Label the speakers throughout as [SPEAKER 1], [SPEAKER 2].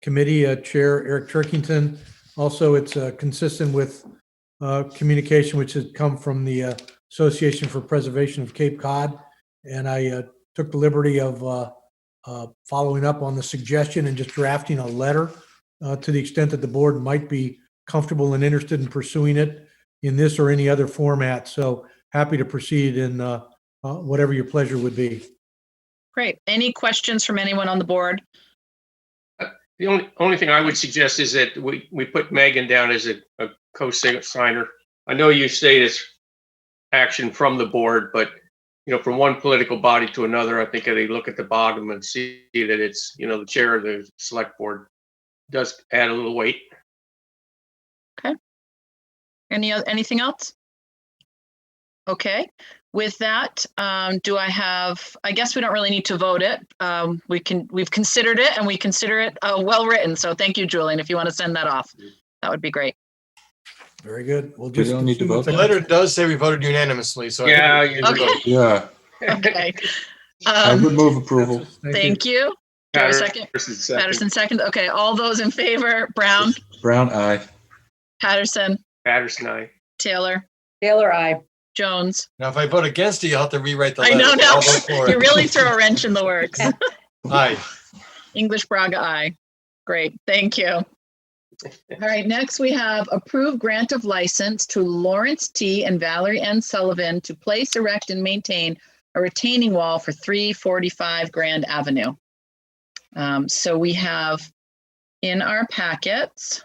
[SPEAKER 1] Committee uh, Chair Eric Turkington. Also, it's uh, consistent with uh, communication which has come from the uh, Association for Preservation of Cape Cod. And I uh, took the liberty of uh, uh, following up on the suggestion and just drafting a letter uh, to the extent that the board might be comfortable and interested in pursuing it in this or any other format. So happy to proceed in uh, uh, whatever your pleasure would be.
[SPEAKER 2] Great. Any questions from anyone on the board?
[SPEAKER 3] The only, only thing I would suggest is that we, we put Megan down as a, a co-signer. I know you say it's action from the board, but, you know, from one political body to another, I think they look at the bottom and see that it's, you know, the chair of the select board does add a little weight.
[SPEAKER 2] Any, oth- anything else? Okay, with that, um, do I have, I guess we don't really need to vote it. Um, we can, we've considered it and we consider it, uh, well-written. So thank you, Julian. If you want to send that off, that would be great.
[SPEAKER 1] Very good. We'll
[SPEAKER 4] We
[SPEAKER 1] just.
[SPEAKER 4] don't need to
[SPEAKER 1] assume it's
[SPEAKER 4] vote
[SPEAKER 5] The
[SPEAKER 1] a-
[SPEAKER 5] letter does say we voted unanimously, so. I think
[SPEAKER 3] Yeah,
[SPEAKER 5] we-
[SPEAKER 3] you-
[SPEAKER 2] Okay,
[SPEAKER 4] Yeah,
[SPEAKER 2] okay.
[SPEAKER 4] I would
[SPEAKER 2] Um,
[SPEAKER 4] move approval.
[SPEAKER 2] thank you. Do I have a second?
[SPEAKER 3] Patterson's second.
[SPEAKER 2] Patterson second. Okay, all those in favor, Brown,
[SPEAKER 4] Brown eye.
[SPEAKER 2] Patterson,
[SPEAKER 3] Patterson, aye.
[SPEAKER 2] Taylor,
[SPEAKER 6] Taylor, I.
[SPEAKER 2] Jones.
[SPEAKER 5] Now, if I vote against it, you'll have to rewrite the
[SPEAKER 2] I
[SPEAKER 5] letter.
[SPEAKER 2] know, no.
[SPEAKER 5] I'll vote for
[SPEAKER 2] You
[SPEAKER 5] it.
[SPEAKER 2] really throw a wrench in the works.
[SPEAKER 5] Aye.
[SPEAKER 2] English Braga, I. Great, thank you. All right, next we have approved grant of license to Lawrence T. and Valerie N. Sullivan to place, erect, and maintain a retaining wall for 345 Grand Avenue. Um, So we have in our packets,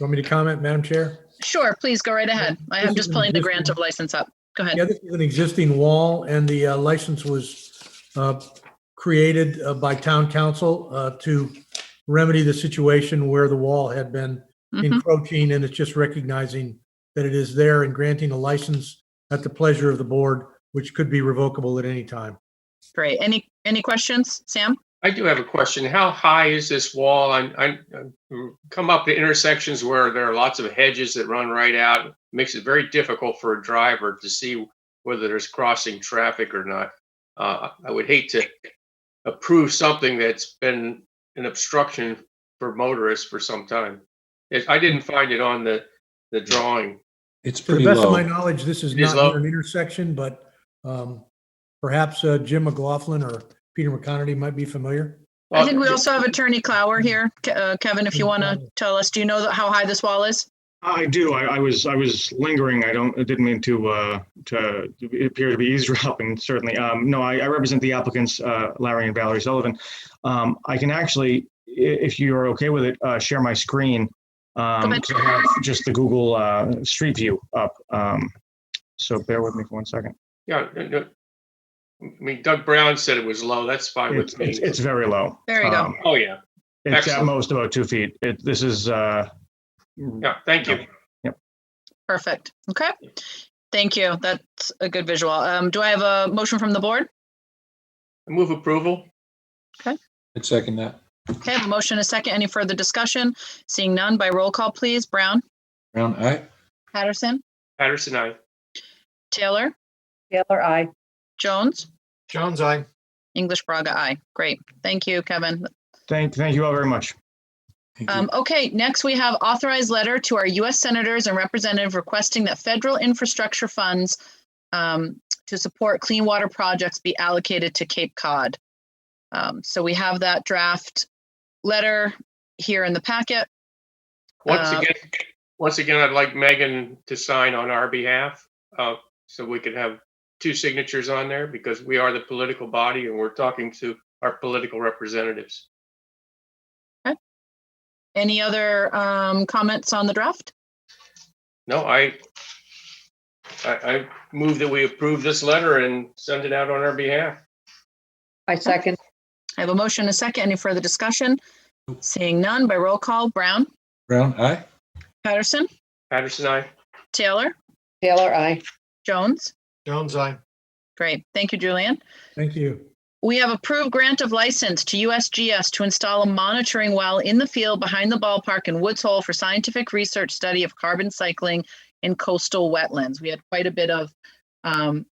[SPEAKER 1] Want me to comment, Madam Chair?
[SPEAKER 2] sure, please go right ahead. I am just pulling the grant of license up. Go ahead.
[SPEAKER 1] Yeah, this is an existing wall and the uh, license was uh, created uh, by town council uh, to remedy the situation where the wall had been
[SPEAKER 3] Mm-hmm.
[SPEAKER 2] Mhm.
[SPEAKER 1] encroaching and it's just recognizing that it is there and granting a license at the pleasure of the board, which could be revocable at any time.
[SPEAKER 2] Great. Any, any questions? Sam?
[SPEAKER 3] I do have a question. How high is this wall? I'm, I'm, I'm- come up to intersections where there are lots of hedges that run right out. Makes it very difficult for a driver to see whether there's crossing traffic or not. Uh, I would hate to approve something that's been an obstruction for motorists for some time. It- I didn't find it on the, the drawing.
[SPEAKER 4] It's
[SPEAKER 1] To the
[SPEAKER 4] pretty
[SPEAKER 1] best of my
[SPEAKER 4] low.
[SPEAKER 1] knowledge, this is
[SPEAKER 3] It is
[SPEAKER 1] not near
[SPEAKER 3] low.
[SPEAKER 1] an intersection, but um, perhaps uh, Jim McLaughlin or Peter McConerty might be familiar.
[SPEAKER 2] I think we
[SPEAKER 3] Well,
[SPEAKER 2] also have Attorney Clower here. Ke- uh, Kevin, if you want to tell us, do you know that- how high this wall is?
[SPEAKER 7] I do. I, I was, I was lingering. I don't, I didn't mean to, uh, to appear to be eavesdropping, certainly. Um, no, I, I represent the applicants, uh, Larry and Valerie Sullivan. Um, I can actually, i- if you're okay with it, uh, share my screen. Um,
[SPEAKER 2] ahead.
[SPEAKER 7] to have just the Google, uh, Street View up. Um, so bear with me for one second.
[SPEAKER 3] Yeah, no, no. I mean Doug Brown said it was low. That's fine
[SPEAKER 7] It's,
[SPEAKER 3] with me.
[SPEAKER 7] it's, it's very low.
[SPEAKER 2] There you go.
[SPEAKER 7] Um,
[SPEAKER 3] Oh, yeah.
[SPEAKER 7] It's at
[SPEAKER 3] Excellent.
[SPEAKER 7] most about two feet. It, this is, uh,
[SPEAKER 3] Yeah, thank you.
[SPEAKER 2] Perfect. Okay. Thank you. That's a good visual. Um, do I have a motion from the board?
[SPEAKER 3] Move approval.
[SPEAKER 4] I'd second that.
[SPEAKER 2] Okay, I have a motion, a second. Any further discussion? Seeing none by roll call, please. Brown,
[SPEAKER 4] Brown eye.
[SPEAKER 2] Patterson,
[SPEAKER 3] Patterson, aye.
[SPEAKER 2] Taylor,
[SPEAKER 6] Taylor, I.
[SPEAKER 2] Jones,
[SPEAKER 5] Jones, aye.
[SPEAKER 2] English Braga, I. Great. Thank you, Kevin.
[SPEAKER 7] thank, thank you all very much.
[SPEAKER 4] Thank you.
[SPEAKER 2] Um, okay, next we have authorized letter to our US senators and representative requesting that federal infrastructure funds um, to support clean water projects be allocated to Cape Cod. Um, so we have that draft letter here in the packet.
[SPEAKER 3] Once
[SPEAKER 2] Uh,
[SPEAKER 3] again, once again, I'd like Megan to sign on our behalf, uh, so we could have two signatures on there because we are the political body and we're talking to our political representatives.
[SPEAKER 2] Any other um, comments on the draft?
[SPEAKER 3] No, I, I, I move that we approve this letter and send it out on our behalf.
[SPEAKER 6] I second.
[SPEAKER 2] I have a motion, a second. Any further discussion? Seeing none by roll call, Brown,
[SPEAKER 4] Brown eye.
[SPEAKER 2] Patterson,
[SPEAKER 3] Patterson, I.
[SPEAKER 2] Taylor,
[SPEAKER 6] Taylor, I.
[SPEAKER 2] Jones.
[SPEAKER 5] Jones, aye.
[SPEAKER 2] Great. Thank you, Julian.
[SPEAKER 1] Thank you.
[SPEAKER 2] We have approved grant of license to USGS to install a monitoring well in the field behind the ballpark in Woods Hole for scientific research study of carbon cycling in coastal wetlands. We had quite a bit of um,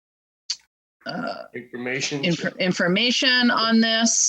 [SPEAKER 2] uh,
[SPEAKER 3] Information.
[SPEAKER 2] infor- information on this.